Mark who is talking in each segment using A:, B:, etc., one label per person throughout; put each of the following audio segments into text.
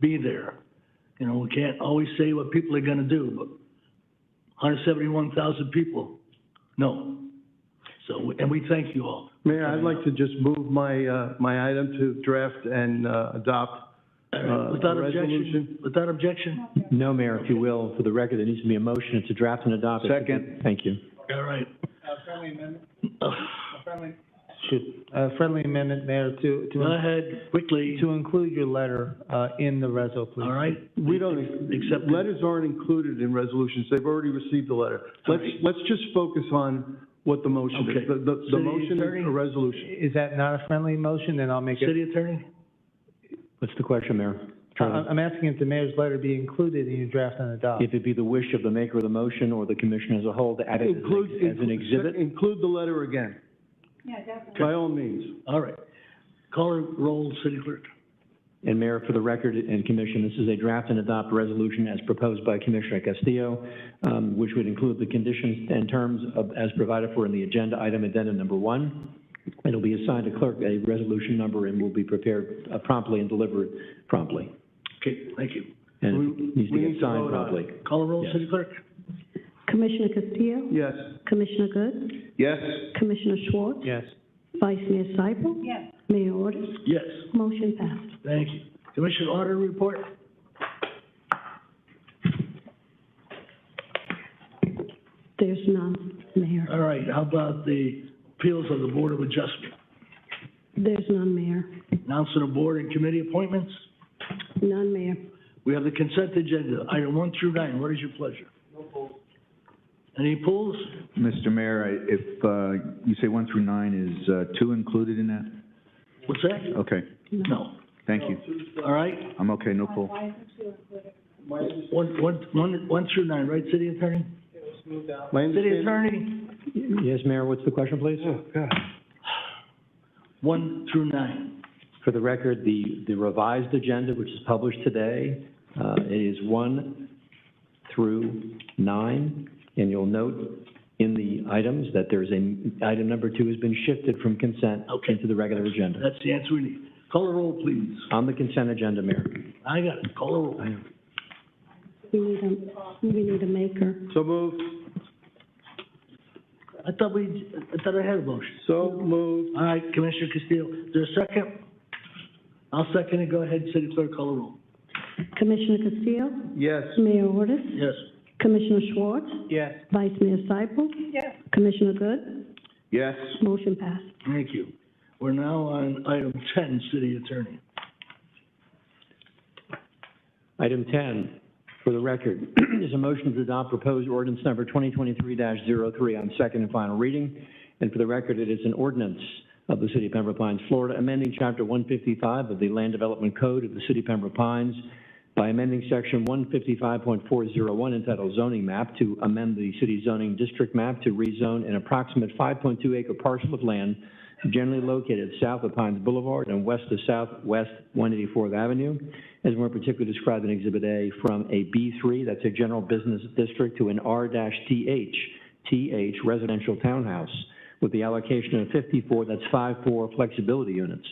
A: be there. You know, we can't always say what people are gonna do, but hundred seventy-one thousand people, no. So, and we thank you all.
B: Mayor, I'd like to just move my, uh, my item to draft and uh, adopt.
A: All right,
B: Uh,
A: Without objection,
B: resolution?
A: without objection,
C: No, Mayor, if you will, for the record, there needs to be a motion to draft and adopt. Second. Thank you.
A: all right.
D: friendly amendment,
A: Uh,
D: friendly. Shoot, a friendly amendment, Mayor, to,
A: Go
D: to,
A: ahead, quickly,
D: to include your letter, uh, in the reso,
A: all
D: please.
A: right?
B: We don't,
A: Accept it.
B: letters aren't included in resolutions, they've already received the letter.
A: All
B: Let's,
A: right.
B: let's just focus on what the motion
A: Okay.
B: is. The, the, the
A: City
B: motion
A: attorney?
B: is a resolution.
D: Is that not a friendly motion? Then I'll make it.
A: City attorney?
C: What's the question, Mayor?
D: I- I'm asking if the mayor's letter be included in your draft and
B: Uh-huh.
D: adopt.
C: If it be the wish of the maker of the motion or the commission as a whole to add it as
B: Include-
C: an- as an exhibit?
B: Include the letter again. Yeah, definitely. By all means.
A: All right. Caller roll, city clerk.
C: And Mayor, for the record and commission, this is a draft and adopt resolution as proposed by Commissioner Castillo, um, which would include the conditions and terms of, as provided for in the agenda item addendum number one. It'll be assigned to clerk a resolution number and will be prepared uh, promptly and delivered promptly.
A: Okay, thank you.
C: And it needs to
B: we need
C: get
B: to
C: signed
B: vote on it.
C: promptly.
A: Caller roll,
C: Yes.
A: city clerk.
E: Commissioner Castillo,
B: Yes.
E: Commissioner Good,
B: Yes.
E: Commissioner Schwartz,
D: Yes.
E: Vice Mayor Seifel. Yes. Mayor Ordus,
A: Yes,
E: motion passed.
A: thank you. Commission order report?
E: There's none, Mayor.
A: All right, how about the appeals of the Board of Adjustment?
E: There's none, Mayor.
A: Announcement of board and committee appointments?
E: None, Mayor.
A: We have the consent agenda, item one through nine. What is your pleasure? Any polls?
F: Mr. Mayor, I- if uh, you say one through nine, is uh, two included in that?
A: What's that?
F: Okay,
A: No.
F: thank you.
A: All right,
F: I'm okay, no pull.
A: one, one, one, one through nine, right, city attorney?
B: My
A: City
B: understanding,
A: attorney,
C: Yes, Mayor, what's the question, please?
A: one through nine.
C: For the record, the, the revised agenda, which is published today, uh, it is one through nine. And you'll note in the items that there's a, item number two has been shifted from consent
A: Okay.
C: into the regular agenda.
A: That's the answer we need. Call a roll, please.
C: On the consent agenda, Mayor.
A: I got it, call a roll.
E: We need a, we need a maker.
B: So moved,
A: I thought we, I thought I had a motion.
B: so moved.
A: All right, Commissioner Castillo, is there a second? I'll second it, go ahead, city clerk, call a roll.
E: Commissioner Castillo,
B: Yes.
E: Mayor Ordus,
A: Yes.
E: Commissioner Schwartz,
D: Yes.
E: Vice Mayor Seifel. Yes. Commissioner Good,
B: Yes.
E: motion passed.
A: Thank you. We're now on item ten, city attorney.
C: Item 10, for the record, is a motion to adopt proposed ordinance number 2023-03 on second and final reading. And for the record, it is an ordinance of the City of Pembroke Pines, Florida, amending Chapter 155 of the Land Development Code of the City of Pembroke Pines by amending Section 155.401 entitled zoning map to amend the city zoning district map to rezone an approximate 5.2 acre parcel of land generally located south of Pines Boulevard and west of Southwest 184th Avenue, as more particularly described in Exhibit A, from a B3, that's a general business district, to an R-TH, TH residential townhouse, with the allocation of 54, that's 5-4 flexibility units,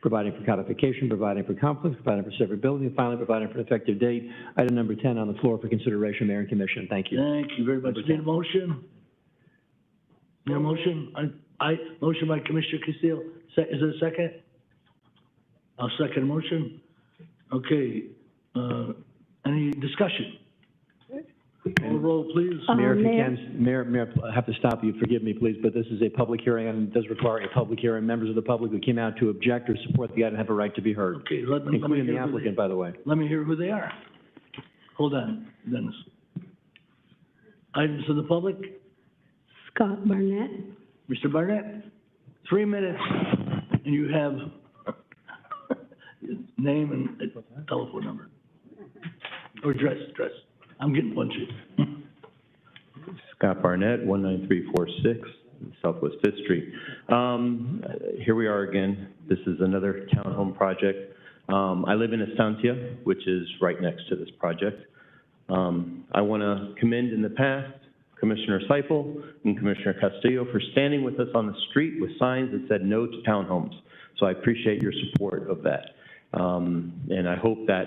C: providing for codification, providing for conflict, providing for severability, and finally, providing for an effective date. Item number 10 on the floor for consideration, Mayor and Commission. Thank you.
A: Thank you very much. Need a motion? Need a motion? I, I, motion by Commissioner Castillo, se- is there a second? I'll second motion. Okay, uh, any discussion? Call the roll, please.
E: Uh,
C: Mayor, if you
E: Mayor-
C: can, Mayor, Mayor, I have to stop you, forgive me, please, but this is a public hearing, and it does require a public hearing. Members of the public who came out to object or support the item have a right to be heard,
A: Okay, let me, let me
C: including the
A: hear who
C: applicant,
A: they,
C: by the way.
A: let me hear who they are. Hold on, Dennis. Items of the public,
E: Scott Barnett,
A: Mr. Barnett, three minutes, and you have name and telephone number. Or address, address. I'm getting punchy.
G: Scott Barnett, 19346 Southwest Fifth Street. Um, Here we are again. This is another townhome project. Um, I live in Estancia, which is right next to this project. Um, I want to commend in the past Commissioner Seipel and Commissioner Castillo for standing with us on the street with signs that said no to townhomes. So I appreciate your support of that. Um, And I hope that